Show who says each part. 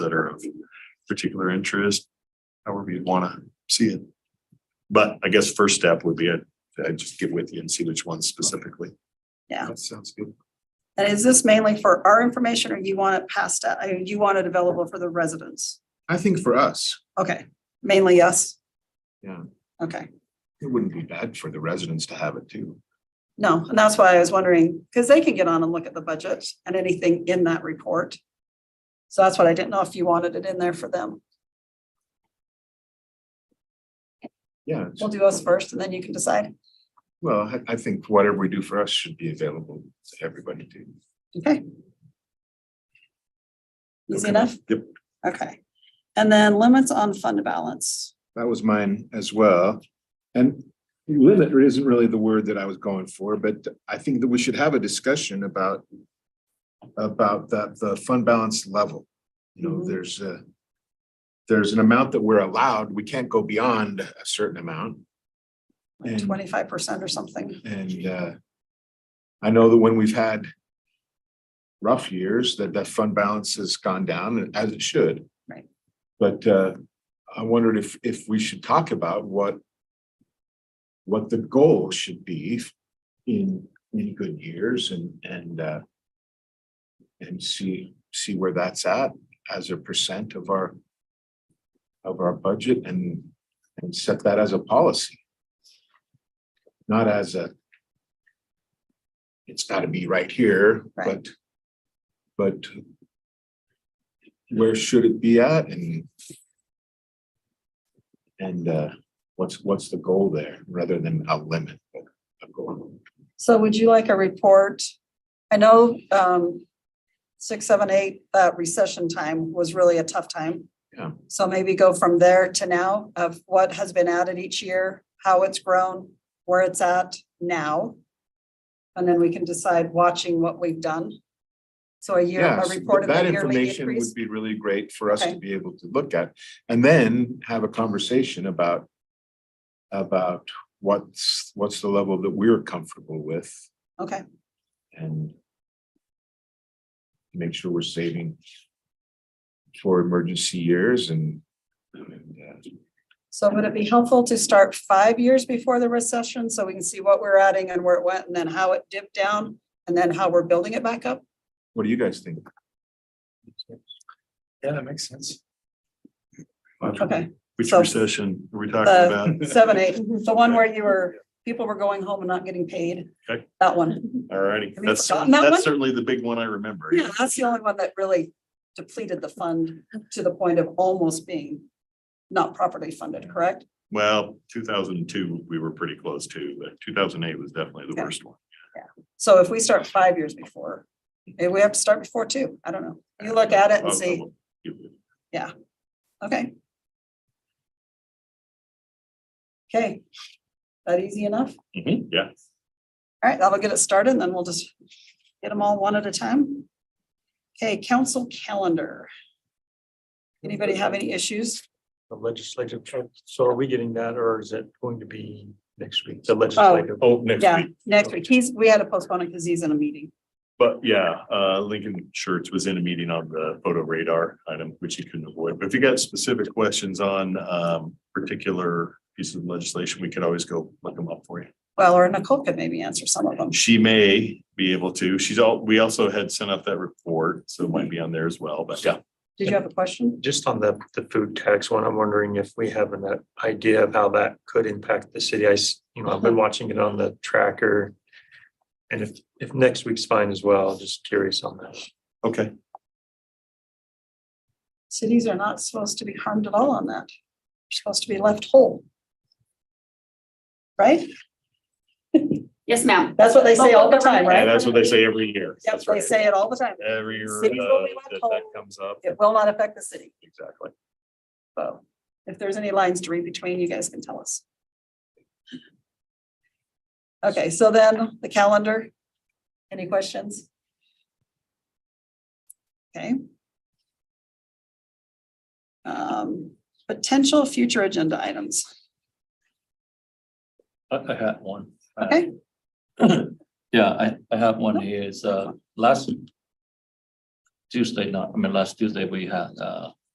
Speaker 1: that are of particular interest, however you'd want to see it. But I guess first step would be I'd I'd just get with you and see which ones specifically.
Speaker 2: Yeah.
Speaker 1: That sounds good.
Speaker 2: And is this mainly for our information or you want it passed, out? I mean, you want it available for the residents?
Speaker 3: I think for us,
Speaker 2: Okay, mainly us?
Speaker 3: Yeah.
Speaker 2: Okay,
Speaker 3: it wouldn't be bad for the residents to have it too.
Speaker 2: no, and that's why I was wondering, because they can get on and look at the budget and anything in that report. So that's what I didn't know if you wanted it in there for them.
Speaker 3: Yeah,
Speaker 2: We'll do us first and then you can decide.
Speaker 3: well, I, I think whatever we do for us should be available to everybody too.
Speaker 2: Okay. Easy
Speaker 1: Okay.
Speaker 2: enough?
Speaker 1: Yep.
Speaker 2: Okay. And then limits on fund balance.
Speaker 3: That was mine as well. And limit isn't really the word that I was going for, but I think that we should have a discussion about about that, the fund balance level. You know,
Speaker 2: Mhm.
Speaker 3: there's a there's an amount that we're allowed. We can't go beyond a certain amount.
Speaker 2: like
Speaker 3: And-
Speaker 2: twenty-five percent or something.
Speaker 3: And uh, I know that when we've had rough years, that that fund balance has gone down as it should.
Speaker 2: Right.
Speaker 3: But uh, I wondered if, if we should talk about what what the goal should be in, in good years and, and uh, and see, see where that's at as a percent of our of our budget and, and set that as a policy not as a. It's gotta be right here,
Speaker 2: Right.
Speaker 3: but, but. Where should it be at and? And uh, what's, what's the goal there rather than a limit? but a goal.
Speaker 2: So would you like a report? I know, um, six, seven, eight, that recession time was really a tough time.
Speaker 3: Yeah.
Speaker 2: So maybe go from there to now of what has been added each year, how it's grown, where it's at now. And then we can decide watching what we've done. So a year, a
Speaker 3: Yes,
Speaker 2: report of
Speaker 3: that
Speaker 2: the yearly
Speaker 3: information
Speaker 2: increase.
Speaker 3: would be really great for us to
Speaker 2: Okay.
Speaker 3: be able to look at and then have a conversation about. About what's, what's the level that we're comfortable with
Speaker 2: Okay,
Speaker 3: and make sure we're saving for emergency years and and, uh,
Speaker 2: so would it be helpful to start five years before the recession so we can see what we're adding and where it went and then how it dipped down? And then how we're building it back up?
Speaker 3: what do you guys think?
Speaker 4: Yeah, that makes sense.
Speaker 2: Okay,
Speaker 1: Which
Speaker 2: So-
Speaker 1: recession are we talking about?
Speaker 2: the seven, eight, the one where you were, people were going home and not getting paid.
Speaker 1: Okay.
Speaker 2: That one.
Speaker 1: Alrighty,
Speaker 2: Have you
Speaker 1: that's,
Speaker 2: forgotten that one?
Speaker 1: that's certainly the big one I remember.
Speaker 2: Yeah, that's the only one that really depleted the fund to the point of almost being not properly funded, correct?
Speaker 1: Well, two thousand and two, we were pretty close to, but two thousand and eight was definitely the
Speaker 2: Okay.
Speaker 1: worst one.
Speaker 2: So if we start five years before, maybe we have to start before two. I don't know. You look at it and see. Okay. Okay. That easy enough?
Speaker 3: Mm-hmm.
Speaker 1: Mhm, Yeah,
Speaker 2: All right, that'll get it started and then we'll just get them all one at a time. Okay, council calendar. Anybody have any issues?
Speaker 4: The legislative, so are we getting that or is it going to be next week? The legislative.
Speaker 1: oh, next
Speaker 2: Yeah,
Speaker 1: week,
Speaker 2: next week. He's, we had to postpone it because he's in a meeting.
Speaker 1: but yeah, uh, Lincoln Shirts was in a meeting on the photo radar item, which he couldn't avoid. But if you got specific questions on, um, particular pieces of legislation, we could always go look them up for you.
Speaker 2: Well, or Nicole could maybe answer some of them.
Speaker 1: She may be able to, she's all, we also had sent out that report, so it might be on there as well, but yeah.
Speaker 2: Did you have a question?
Speaker 4: Just on the, the food tax one, I'm wondering if we have an uh, idea of how that could impact the city. I, s- you know, I've been watching it on the tracker. And if, if next week's fine as well, just curious on that.
Speaker 1: Okay.
Speaker 2: Cities are not supposed to be harmed at all on that. They're supposed to be left whole. Right?
Speaker 5: Yes, ma'am.
Speaker 2: That's what they say all the time,
Speaker 1: Yeah,
Speaker 2: right?
Speaker 1: that's what they say every year.
Speaker 2: Yep,
Speaker 1: That's
Speaker 2: they
Speaker 1: right.
Speaker 2: say it all the time.
Speaker 1: Every year uh,
Speaker 2: Cities will be
Speaker 1: that that
Speaker 2: withhold.
Speaker 1: comes up,
Speaker 2: It will not affect the city.
Speaker 1: exactly.
Speaker 2: So if there's any lines to read between, you guys can tell us. Okay, so then the calendar. Any questions? Okay. Um, potential future agenda items.
Speaker 6: I, I had one.
Speaker 2: Okay.
Speaker 6: Yeah, I, I have one here. It's, uh, last Tuesday night, I mean, last Tuesday, we had, uh,